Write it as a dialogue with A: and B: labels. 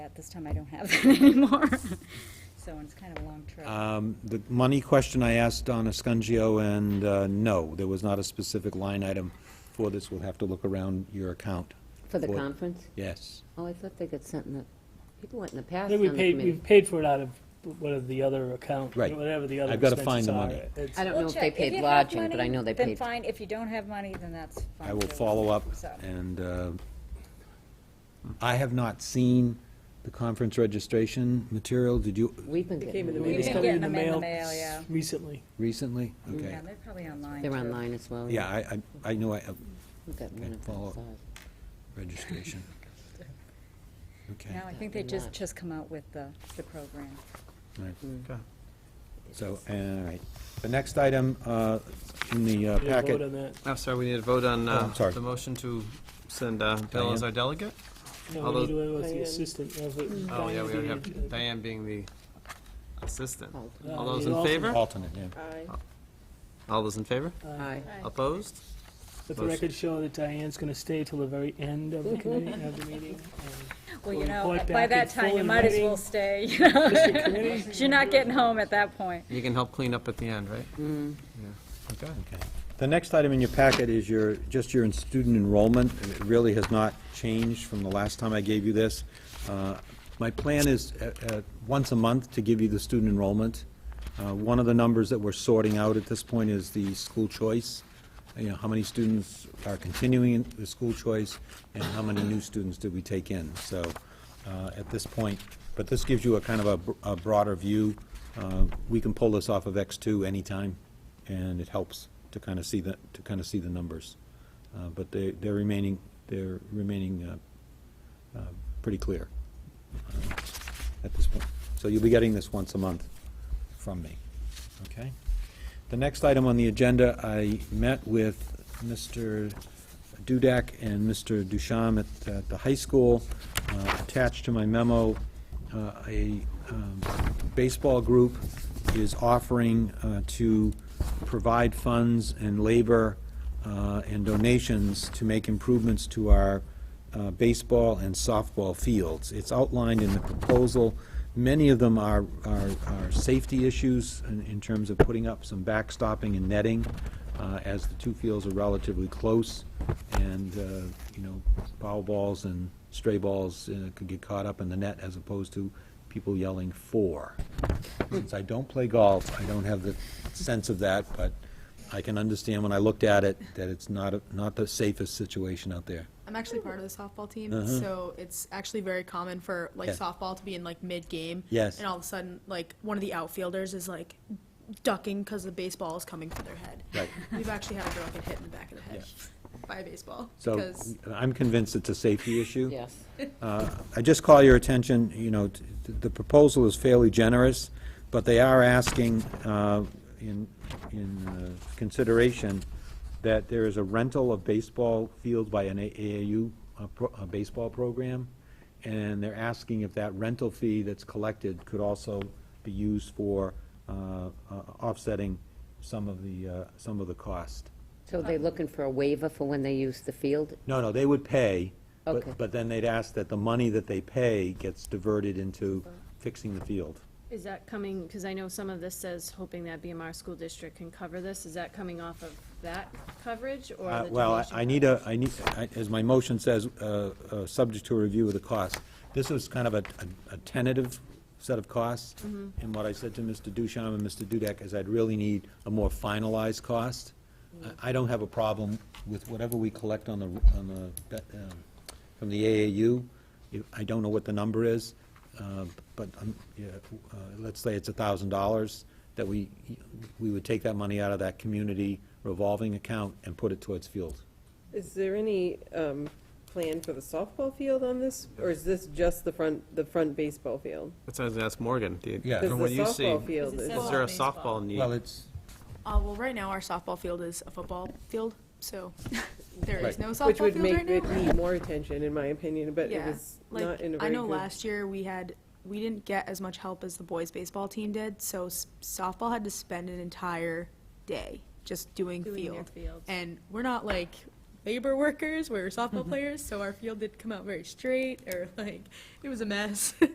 A: but this time I don't have that anymore. So it's kind of a long trip.
B: Um, The money question I asked on Escungio, and uh, no, there was not a specific line item for this. We'll have to look around your account.
C: For the
B: for-
C: conference?
B: Yes.
C: Oh, I thought they got something that, people went in the past
D: I
C: on
D: think we
C: the
D: paid, we
C: committee.
D: paid for it out of one of the other account,
B: Right.
D: whatever the other
B: I've gotta
D: expenses
B: find the
D: are.
B: money.
D: It's-
C: I don't know
A: We'll
C: if they
A: check.
C: paid
A: you have
C: lodging, but I
A: money,
C: know they
A: Then
C: paid.
A: fine, if you don't have money, then that's fine.
B: I will
A: too.
B: follow up,
A: So-
B: and uh, I have not seen the conference registration material. Did you
C: We've been
D: It came
C: getting
D: in the
C: them.
A: We
D: mail. It's
A: didn't
D: coming
A: get
D: in the
A: them in the
D: mail
A: mail, yeah.
D: recently.
B: recently? Okay.
A: Yeah, they're probably online.
C: They're
A: too.
C: online as well.
B: Yeah, I, I I knew I, uh,
C: We've got one
B: Okay,
C: of
B: follow
C: them,
B: up.
C: sorry.
B: registration. Okay,
A: No, I think they just, just come out with the, the program.
B: all right. So, all right. The next item uh, in the uh,
D: Did you vote
B: packet
D: on that?
E: I'm sorry, we need to vote on
B: Oh, I'm
E: uh,
B: sorry.
E: the motion to send uh, Bill as
B: Diane?
E: our delegate?
D: No, we
E: Although-
D: need to, was the
C: Diane.
D: assistant. of it.
E: Oh, yeah, we
D: Diane.
E: already have Diane being the assistant.
C: Oh,
D: Uh,
E: All those
D: you
E: in
D: also-
E: favor?
B: alternate, yeah.
E: All those in favor?
C: Aye.
E: Opposed?
D: Let Uh, the record show that Diane's gonna stay till the very end of the committee, of the meeting.
A: Well, you
D: We'll
A: know,
D: report
A: by
D: back
A: that
D: in
A: time,
D: full
A: you
D: in
A: might as
D: writing.
A: well stay, you know?
D: District committee?
A: You're not getting home at that point.
E: You can help clean up at the end, right?
B: Okay. The next item in your packet is your, just your student enrollment, and it really has not changed from the last time I gave you this. Uh, My plan is, uh, uh, once a month, to give you the student enrollment. Uh, One of the numbers that we're sorting out at this point is the school choice, you know, how many students are continuing in the school choice, and how many new students did we take in, so, uh, at this point, but this gives you a kind of a br- a broader view. Uh, We can pull this off of X2 anytime and it helps to kind of see the, to kind of see the numbers. Uh, But they, they're remaining, they're remaining uh, uh, pretty clear uh, at this point. So you'll be getting this once a month from me, okay? The next item on the agenda, I met with Mr. Dudak and Mr. Dusham at, at the high school. Uh, Attached to my memo, uh, a um, baseball group is offering uh, to provide funds and labor uh, and donations to make improvements to our uh, baseball and softball fields. It's outlined in the proposal. Many of them are, are, are safety issues in, in terms of putting up some backstopping and netting, uh, as the two fields are relatively close, and, uh, you know, foul balls and stray balls uh, could get caught up in the net as opposed to people yelling "four." Since I don't play golf, I don't have the sense of that, but I can understand when I looked at it that it's not, a- not the safest situation out there.
F: I'm actually part of the softball team,
B: Uh-huh.
F: so it's actually very common for like
B: Yeah.
F: softball to be in like mid game.
B: Yes.
F: And all of a sudden, like one of the outfielders is like ducking because the baseball is coming for their head.
B: Right.
F: We've actually had a girl get hit in the back of the head by a baseball
B: So
F: because
B: I'm convinced it's a safety issue.
C: Yes.
B: Uh, I just call your attention, you know, t- t- the proposal is fairly generous, but they are asking uh, in, in uh, consideration that there is a rental of baseball fields by an AAU uh, pro- uh, baseball program, and they're asking if that rental fee that's collected could also be used for uh, uh, offsetting some of the, uh, some of the cost.
C: So they looking for a waiver for when they use the field?
B: No, no, they would pay,
C: Okay.
B: but, but then they'd ask that the money that they pay gets diverted into fixing the field.
G: Is that coming, because I know some of this says hoping that BMR school district can cover this, is that coming off of that coverage or
B: Uh,
G: the donation?
B: Well, I- I need a, I need, I- as my motion says, uh, uh, subject to a review of the cost. This is kind of a a- a tentative set of costs, and what I said to Mr. Ducharme and Mr. Dudek is I'd really need a more finalized cost. I I don't have a problem with whatever we collect on the, on the, um, from the AAU. If- I don't know what the number is, uh, but, um, yeah, uh, let's say it's thousand dollars, that we, we would take that money out of that community revolving account and put it towards fields.
H: Is there any um, plan for the softball field on this, or is this just the front, the front baseball field?
E: That's, that's Morgan. Do you-
B: Yeah.
H: Because
E: From
H: the
E: what you see,
H: softball field
A: Is it
H: is,
E: is there a
A: Baseball.
E: softball need?
B: Well, it's,
F: uh, well, right now our softball field is a football field, so there is
B: Right.
F: no
H: which
F: softball
H: would
F: field
H: make
F: right now.
H: it need more attention, in my opinion, but it
F: Yeah,
H: was not
F: like,
H: in a
F: I
H: very
F: know
H: good.
F: last year we had, we didn't get as much help as the boys baseball team did, so s- softball had to spend an entire day just doing
G: Doing their
F: field.
G: fields.
F: And we're not like labor
H: Mm-hmm.
F: workers, we were softball players, so our field did come out very straight, or like, it was a mess.